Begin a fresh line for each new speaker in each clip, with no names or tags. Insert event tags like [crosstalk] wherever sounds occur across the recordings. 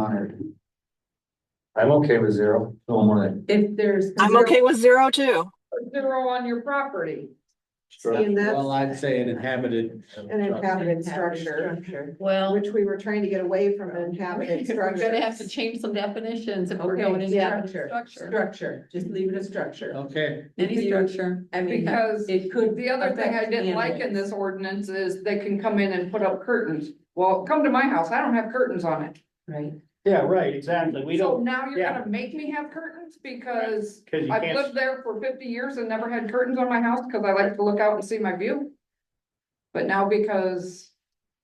monitored. I'm okay with zero, no more than.
If there's.
I'm okay with zero too.
Zero on your property.
And that's-
Well, I'd say an inhabited.
uh,
An inhabited structure,
Well,
which we were trying to get away from inhabited
[laughs] We're
structure.
gonna have to change some definitions if we're
Okay,
going into
yeah.
structure,
Structure, just leave it a structure.
Okay,
any structure.
I mean,
Because
it could.
the other thing I
affect
didn't like in this ordinance is they can come in and put up curtains. Well, come to my house, I don't have curtains on it.
Right.
Yeah, right, exactly. We
So
don't,
now you're
yeah.
gonna make me have curtains because
because you
I've
can't,
lived there for fifty years and never had curtains on my house because I like to look out and see my view. But now because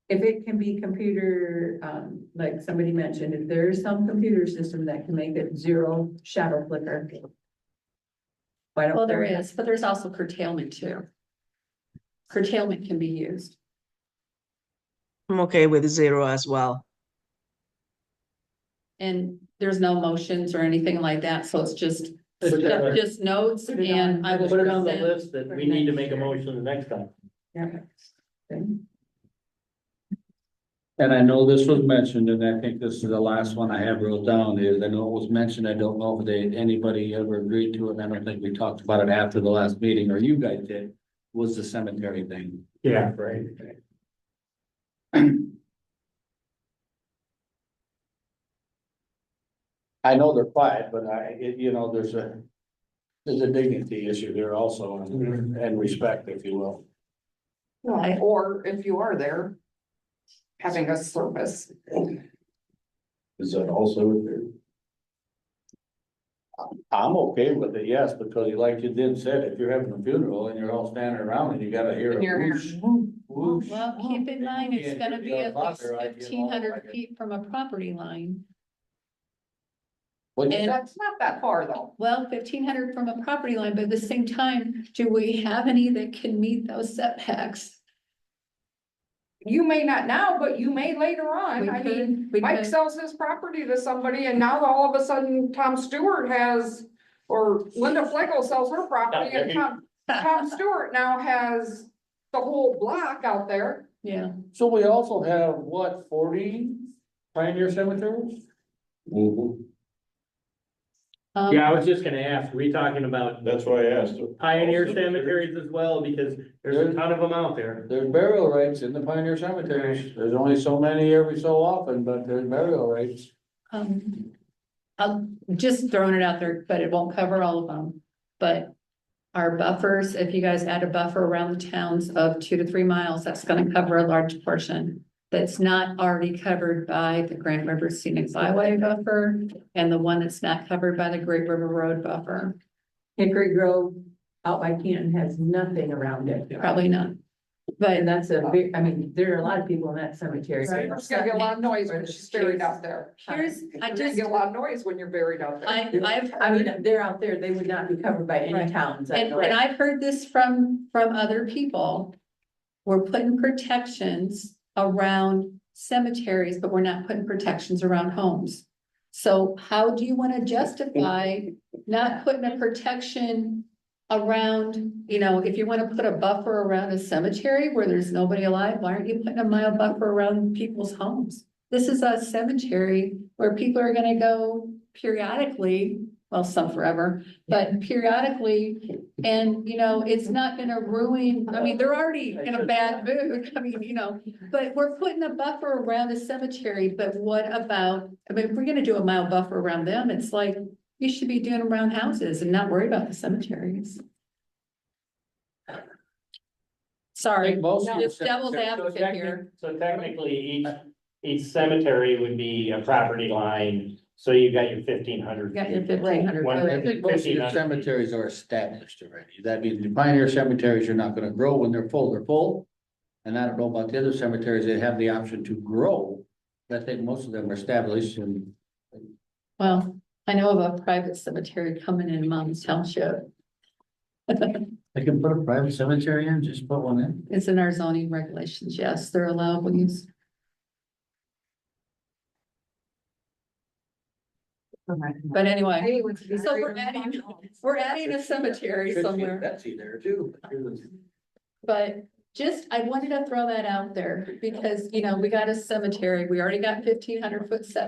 If it can be computer, um, like somebody mentioned, if there is some computer system that can make it zero shadow flicker. Why don't?
Well, there is, but there's also curtailment too. Curtailment can be used.
I'm okay with zero as well.
And there's no motions or anything like that, so it's just,
Put that on.
just notes
Put it on.
and I will.
put it on the
present-
list that we need to make a motion the next time.
and I know this was mentioned, and I think this is the last one I have wrote down is, I know it was mentioned, I don't know if they, anybody ever agreed to it, and I don't think we talked about it after the last meeting, or you guys did. Was the cemetery thing.
Yeah, right.
I know they're quiet, but I, it, you know, there's a. There's a dignity issue there also, and,
Mm-hmm.
and respect, if you will.
Right.
Or if you are there. Having a service.
Is that also there? I'm okay with it, yes, because like you did said, if you're having a funeral and you're all standing around and you gotta hear. a
And you're here.
whoosh,
Mm-hmm.
whoosh,
Well, keep in mind,
Yeah,
it's gonna
you
be
know,
at least
bother, I'd get
fifteen
all- I
hundred
get-
feet from a property line.
Well,
And-
That's not that far though.
Well, fifteen hundred from a property line, but at the same time, do we have any that can meet those setbacks?
You may not now, but you may later on.
We
I mean.
could, we
Mike
could,
sells his property to somebody and now all of a sudden Tom Stewart has, or Linda Flegel sells her property and Tom, Tom Stewart now has the whole block out there.
yeah,
So we also have, what, forty pioneer cemeteries?
Mm-hmm.
um,
Yeah, I was just gonna ask, were you talking about
That's why I asked.
pioneer cemeteries as well? Because there's a ton of them out there.
There's burial rights in the pioneer cemeteries, there's only so many every so often, but there's burial rights.
um. I'm just throwing it out there, but it won't cover all of them, but. Our buffers, if you guys add a buffer around the towns of two to three miles, that's gonna cover a large portion. That's not already covered by the Grand River Scenic Byway buffer and the one that's not covered by the Great River Road buffer,
Hickory Grove out by Canton has nothing around it.
probably not. But
And that's a big, I mean, there are a lot of people in that cemetery.
Right.
There's gonna be a lot of noise when she's buried out there.
Here's, I
You're gonna
just,
get a lot of noise when you're buried out there.
I, I've
I
heard,
mean, they're out there, they would not be covered by
Right.
any towns. I
and,
know.
and I've heard this from, from other people. We're putting protections around cemeteries, but we're not putting protections around homes. So how do you wanna justify not putting a protection around, you know, if you wanna put a buffer around a cemetery where there's nobody alive, why aren't you putting a mile buffer around people's homes? This is a cemetery where people are gonna go periodically, well, some forever, but periodically. And, you know, it's not gonna ruin, I mean, they're already in a bad mood, [laughs] I mean, you know, but we're putting a buffer around a cemetery, but what about, I mean, if we're gonna do a mile buffer around them, it's like, you should be doing around houses and not worry about the cemeteries. Sorry, just devil's advocate here.
So technically, each, each cemetery would be a property line, so you got your fifteen hundred.
You got your fifteen
I
hundred.
One.
think most of your cemeteries are established already, that means the pioneer cemeteries are not gonna grow when they're full, they're full. And I don't know about the other cemeteries, they have the option to grow, but I think most of them are established and.
Well, I know of a private cemetery coming in Mom's Township.
They can put a private cemetery in, just put one in.
It's in our zoning regulations, yes, they're allowable use. But anyway,
Hey, what's the-
So we're adding- [laughs] we're adding a cemetery
Could see
somewhere.
Betsy there too.
But just, I wanted to throw that out there because, you know, we got a cemetery, we already got fifteen hundred foot setback.